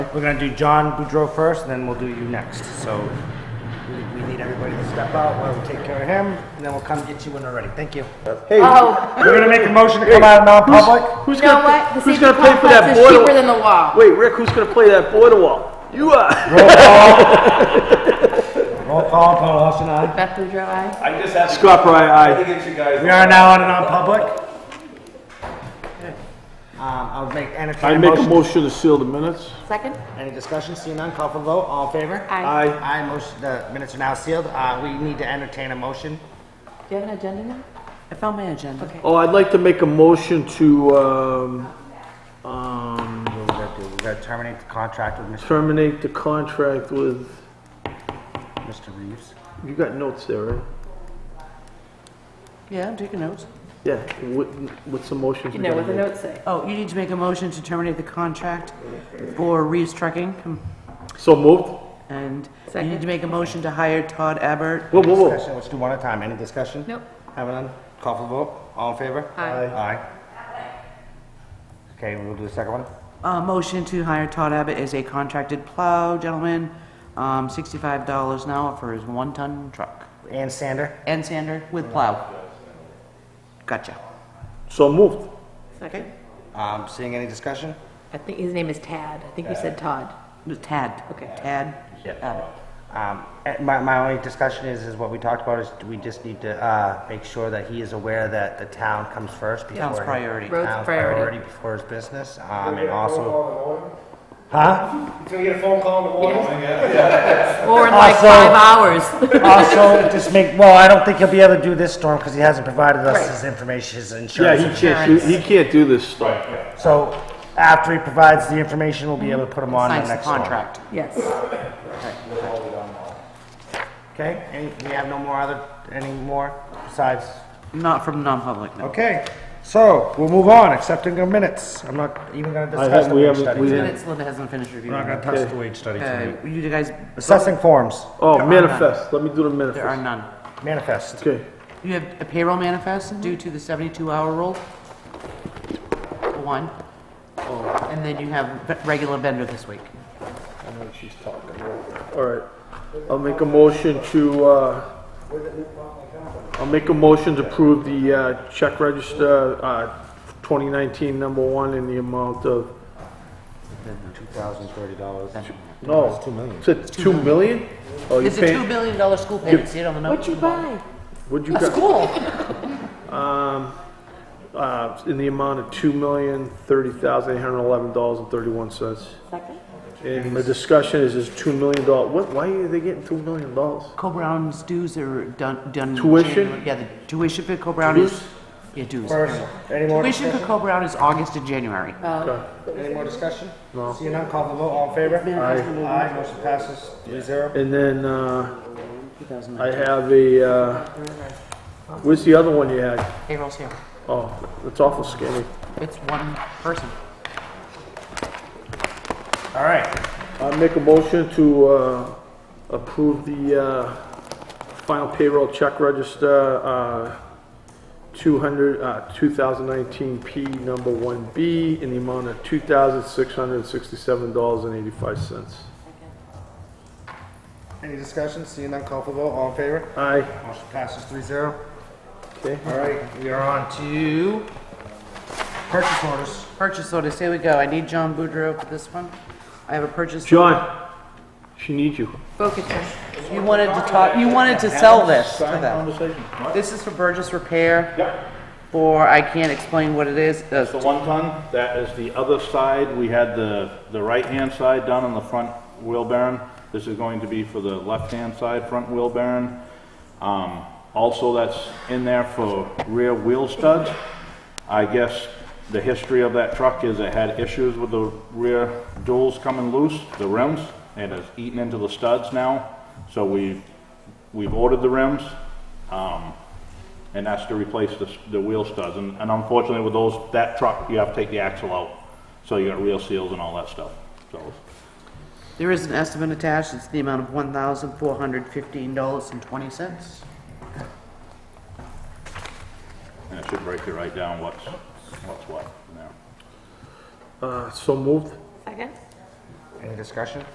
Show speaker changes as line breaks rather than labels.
We're gonna do John Boudreau first, and then we'll do you next. So we- we need everybody to step out while we take care of him, and then we'll come get you when we're ready. Thank you.
Oh,
We're gonna make a motion to come out of non-public.
Who's
you know
gonna,
what?
pay-
The
who's
safety
gonna pay for that
complex is
border?
cheaper than the wall.
Wait, Rick, who's gonna play that border wall? You uh, are.
Roll call, Paul Austin, aye.
Beth Boudreau, aye.
I just have to.
Scott Pry,
I
aye.
think it's you guys.
We are now on a non-public. Um, I'll make, entertain
I
a
make a
motion.
motion to seal the minutes.
Second?
Any discussion? Seeing none, call for vote. All in favor?
Aye.
Aye.
Aye, motion, the minutes are now sealed. Uh, we need to entertain a motion.
Do you have an agenda now?
I found my agenda. Okay.
Oh, I'd like to make a motion to, um, um,
What we gotta do? We gotta terminate the contract with Mr.
terminate the contract with,
Mr. Reeves.
you got notes there, right?
Yeah, I'm taking notes.
Yeah, what, what's the motion?
You know what the notes say.
Oh, you need to make a motion to terminate the contract for Reeves Trucking. um,
So moved?
And you
Second.
need to make a motion to hire Todd Abbott.
Whoa, whoa, whoa.
Discussion, let's do one at a time. Any discussion?
Nope.
Have none? Call for vote. All in favor?
Aye.
Aye. Okay, we'll do the second one.
Uh, motion to hire Todd Abbott as a contracted plow gentleman, um, sixty-five dollars an hour for his one-ton truck.
Ann Sander,
And sander with plow. Gotcha.
So moved.
Second?
um, seeing any discussion?
I think his name is Tad. I think you said Todd.
Tad.
Okay.
Tad. Abbott.
Um, eh, my, my only discussion is, is what we talked about is we just need to, uh, make sure that he is aware that the town comes first before.
Town's priority.
Road's
town's
priority.
before his business, um, and also. Huh?
Ah,
Or in like
Also-
five hours.
Also, just make, well, I don't think he'll be able to do this storm because he hasn't provided us
Right.
his information, his
Yeah,
insurance.
he can't, he can't do this stuff.
So after he provides the information, we'll be able to put him on the
Signs the
next one.
contract.
Yes.
Okay, any, we have no more other, any more besides?
Not from non-public, no.
Okay, so we'll move on, accepting the minutes. I'm not even gonna
I
discuss
have,
the
we
wage
haven't, we
study.
haven't.
Minutes, Linda hasn't finished reviewing.
We're not gonna touch the wage study tonight.
Uh, you guys,
Assessing forms,
Oh,
There are
manifest, let me do the
there are
manifest.
none.
manifest.
Okay,
You have a payroll manifest
Mm-hmm.
due to the 72-hour rule, one.
Oh.
And then you have v- regular vendor this week.
all right. I'll make a motion to, uh, I'll make a motion to approve the, uh, check register, uh, twenty nineteen number one in the amount of,
Two thousand thirty dollars.
no.
It's two million.
Is it two million? Oh, you
It's a $2
paying,
billion school payment, see it on the note?
what'd you
A
got?
school!
Uh, in the amount of two million, thirty thousand, eight hundred and eleven dollars and thirty-one cents.
Second?
And the discussion is, is two million dollar, what, why are they getting two million dollars?
Co-Brown's dues are done, done. in
Tuition?
January. Yeah, the tuition for Co-Brown is,
Dues?
yeah, dues.
First, any more
Tuition for
discussion?
Co-Brown is August and January.
Oh.
Any more discussion? No. Seeing none, call for vote, all in favor? Aye. Aye, motion passes three zero.
And then, uh, I have a, uh, where's the other one you had?
Payroll's here.
Oh, that's awful skinny.
It's one person.
All right,
I make a motion to, uh, approve the, uh, final payroll check register, uh, two hundred, uh, two thousand nineteen P number one B in the amount of two thousand six hundred and sixty-seven dollars and eighty-five cents.
any discussion? Seeing none, call for vote, all in favor?
Aye,
Motion passes three zero.
okay.
All right, we are on to purchase orders.
Purchase orders, here we go. I need John Boudreau for this one. I have a purchase.
John, she needs you.
Focus. on-
You wanted to talk, you wanted to sell this to them. This is for Burgess Repair.
Yep.
For, I can't explain what it is. Uh,
That's the one ton, that is the other side, we had the, the right-hand side done on the front wheel bearing. This is going to be for the left-hand side front wheel bearing. Um, also that's in there for rear wheel studs. I guess the history of that truck is it had issues with the rear duals coming loose, the rims, and it's eaten into the studs now. So we've, we've ordered the rims, um, and that's to replace the, s- the wheel studs. And, and unfortunately with those, that truck, you have to take the axle out, so you got real seals and all that stuff, so.
There is an estimate attached. It's the amount of one thousand four hundred fifteen dollars and twenty cents.
And it should break it right down what's, what's what in there.
Uh, so moved.
Second?
Any discussion?